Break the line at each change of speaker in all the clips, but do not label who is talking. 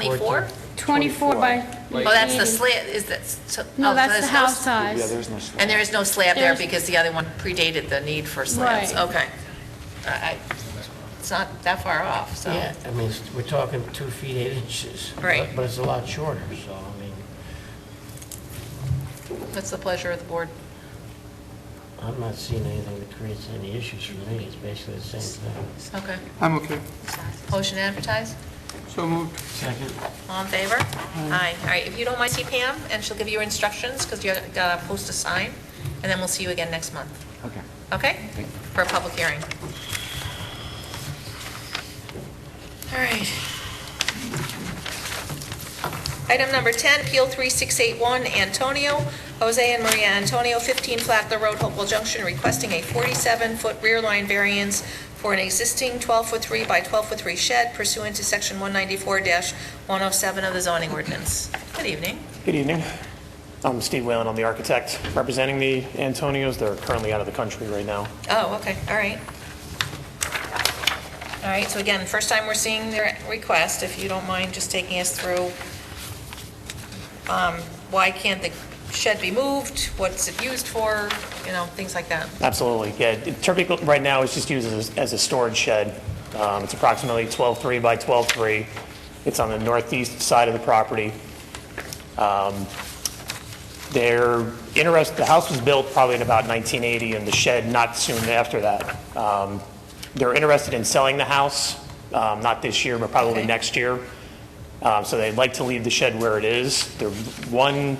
24?
24 by...
Oh, that's the slab, is that, so...
No,
oh,
that's
there's
the
no-
house size.
Yeah, there's no slab.
And there is no slab there
There's-
because the other one predated the need for slabs?
Right.
Okay. I- I- It's not that far off, so...
Yeah, uh, I mean, it's- we're talking two feet, eight inches. but-
Right.
But it's a lot shorter, so, I mean,
What's the pleasure of the board?
I'm not seeing anything that creates any issues for me. It's basically the same thing.
Okay.
I'm okay.
Motion to advertise?
So moved.
Second?
All in favor? Aye. All right, if you don't mind, see Pam, and she'll give you instructions, because you gotta post a sign, and then we'll see you again next month.
Okay.
Okay? For a public hearing. All right. Item number 10, Appeal 3681, Antonio, Jose and Maria Antonio, 15 Flagler Road, Hopewell Junction, requesting a 47-foot rear line variance for an existing 12-foot 3 by 12-foot 3 shed pursuant to Section 194-107 of the zoning ordinance. Good evening.
Good evening. I'm Steve Whalen, I'm the architect representing the Antonios. They're currently out of the country right now.
Oh, okay, all right. All right, so again, first time we're seeing their request, if you don't mind just taking us through, um, why can't the shed be moved? What's it used for? You know, things like that.
Absolutely, yeah. Typical, right now, it's just used as, as a storage shed. Um, It's approximately 12.3 by 12.3. It's on the northeast side of the property. Um, They're interest, the house was built probably in about 1980, and the shed not soon after that. Um, They're interested in selling the house, um, not this year, but probably
Okay.
next year. Um, So they'd like to leave the shed where it is. The one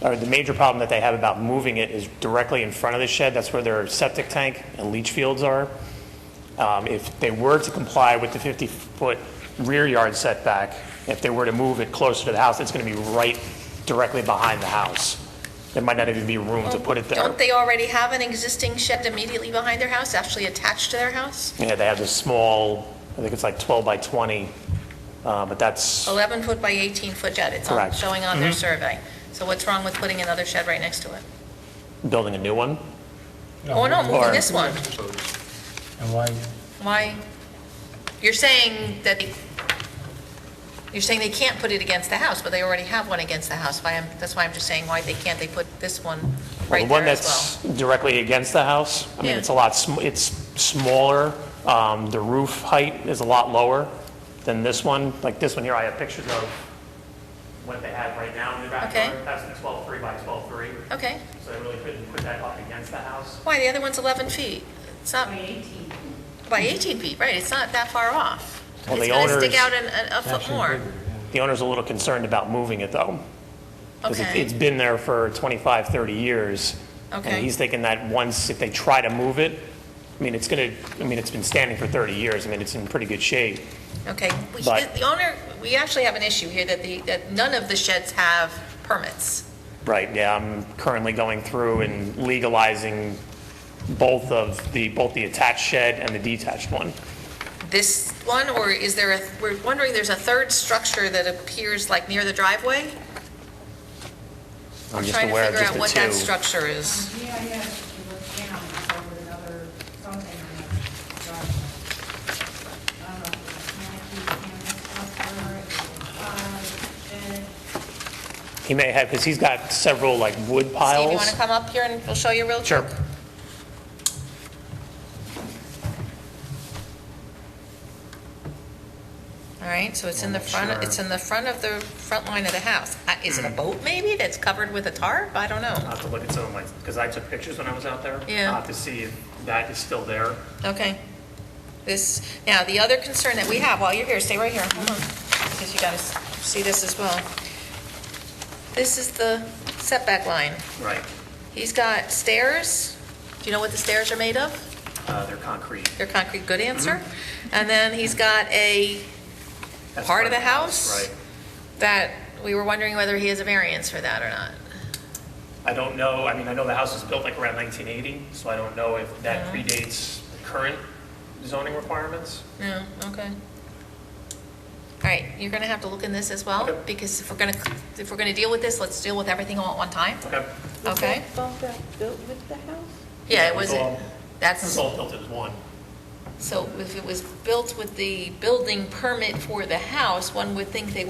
or the major problem that they have about moving it is directly in front of the shed. That's where their septic tank and leach fields are. Um, If they were to comply with the 50-foot rear yard setback, if they were to move it closer to the house, it's going to be right directly behind the house. There might not even be room to put it there.
Don't they already have an existing shed immediately behind their house, actually attached to their house?
Yeah, they have this small, I think it's like 12 by 20, uh, but that's,
11-foot by 18-foot shed, it's on-
Correct.
showing on their survey. So what's wrong with putting another shed right next to it?
building a new one?
Oh, no, moving
Or-
this one.
And why,
Why? You're saying that, they- you're saying they can't put it against the house, but they already have one against the house. Why, I'm- that's why I'm just saying, why they can't they put this one
Well,
right
The one
there as well?
that's directly against the house, I mean,
Yeah.
it's a lot, sm- it's smaller, um, the roof height is a lot lower than this one, like this one here, I have pictures of what they have right now in the backyard.
Okay.
That's a 12.3 by 12.3,
Okay.
so they really couldn't put that up against the house.
Why, the other one's 11 feet? It's not... By 18. By 18 feet, right, it's not that far off.
Well,
It's
the
going to stick
owner's-
out an- a- a foot more.
The owner's a little concerned about moving it, though. Because
Okay.
it's been there for 25, 30 years.
Okay.
And he's thinking that once, if they try to move it, I mean, it's going to, I mean, it's been standing for 30 years, I mean, it's in pretty good shape.
Okay, we-
But-
the owner, we actually have an issue here that the, that none of the sheds have permits.
Right, yeah, I'm currently going through and legalizing both of the, both the attached shed and the detached one.
This one, or is there a, we're wondering, there's a third structure that appears like near the driveway?
I'm just
trying to
aware of
figure
just
out
the
what that
two.
structure is.
Yeah, yeah, she looked down, so with another something on the driveway. I don't know, Uh, and,
He may have, because he's got several like wood
Steve, you
piles.
want to come up here and we'll show you real
Sure.
quick? All right, so it's in the front, it's in the front of the front line of the house. Uh, Is it a boat maybe that's covered with a tarp? I don't
Hmm. I'll
know.
have to look at some of my, because I took pictures when I was out there.
Yeah.
I'll have to see if that is still there.
Okay. This, now, the other concern that we have, while you're here, stay right here, hold on, because you got to see this as well. This is the setback line.
Right,
He's got stairs. Do you know what the stairs are made of?
uh, they're concrete. Mm-hmm.
Your concrete, good answer. And then he's got a,
That's
Part of the house?
Right.
that, we were wondering whether he has a variance for that or not.
I don't know, I mean, I know the house was built like around 1980, so I don't know if that predates current zoning requirements.
No, okay. All right, you're going to have to look in this as well,
Okay.
because if we're going to, if we're going to deal with this, let's deal with everything all at one time,
Okay.
okay?
Bumped out built with the house?
Yeah, it was,
all-
that's,
This is all built as one.
So if it was built with the building permit for the house, one would think they would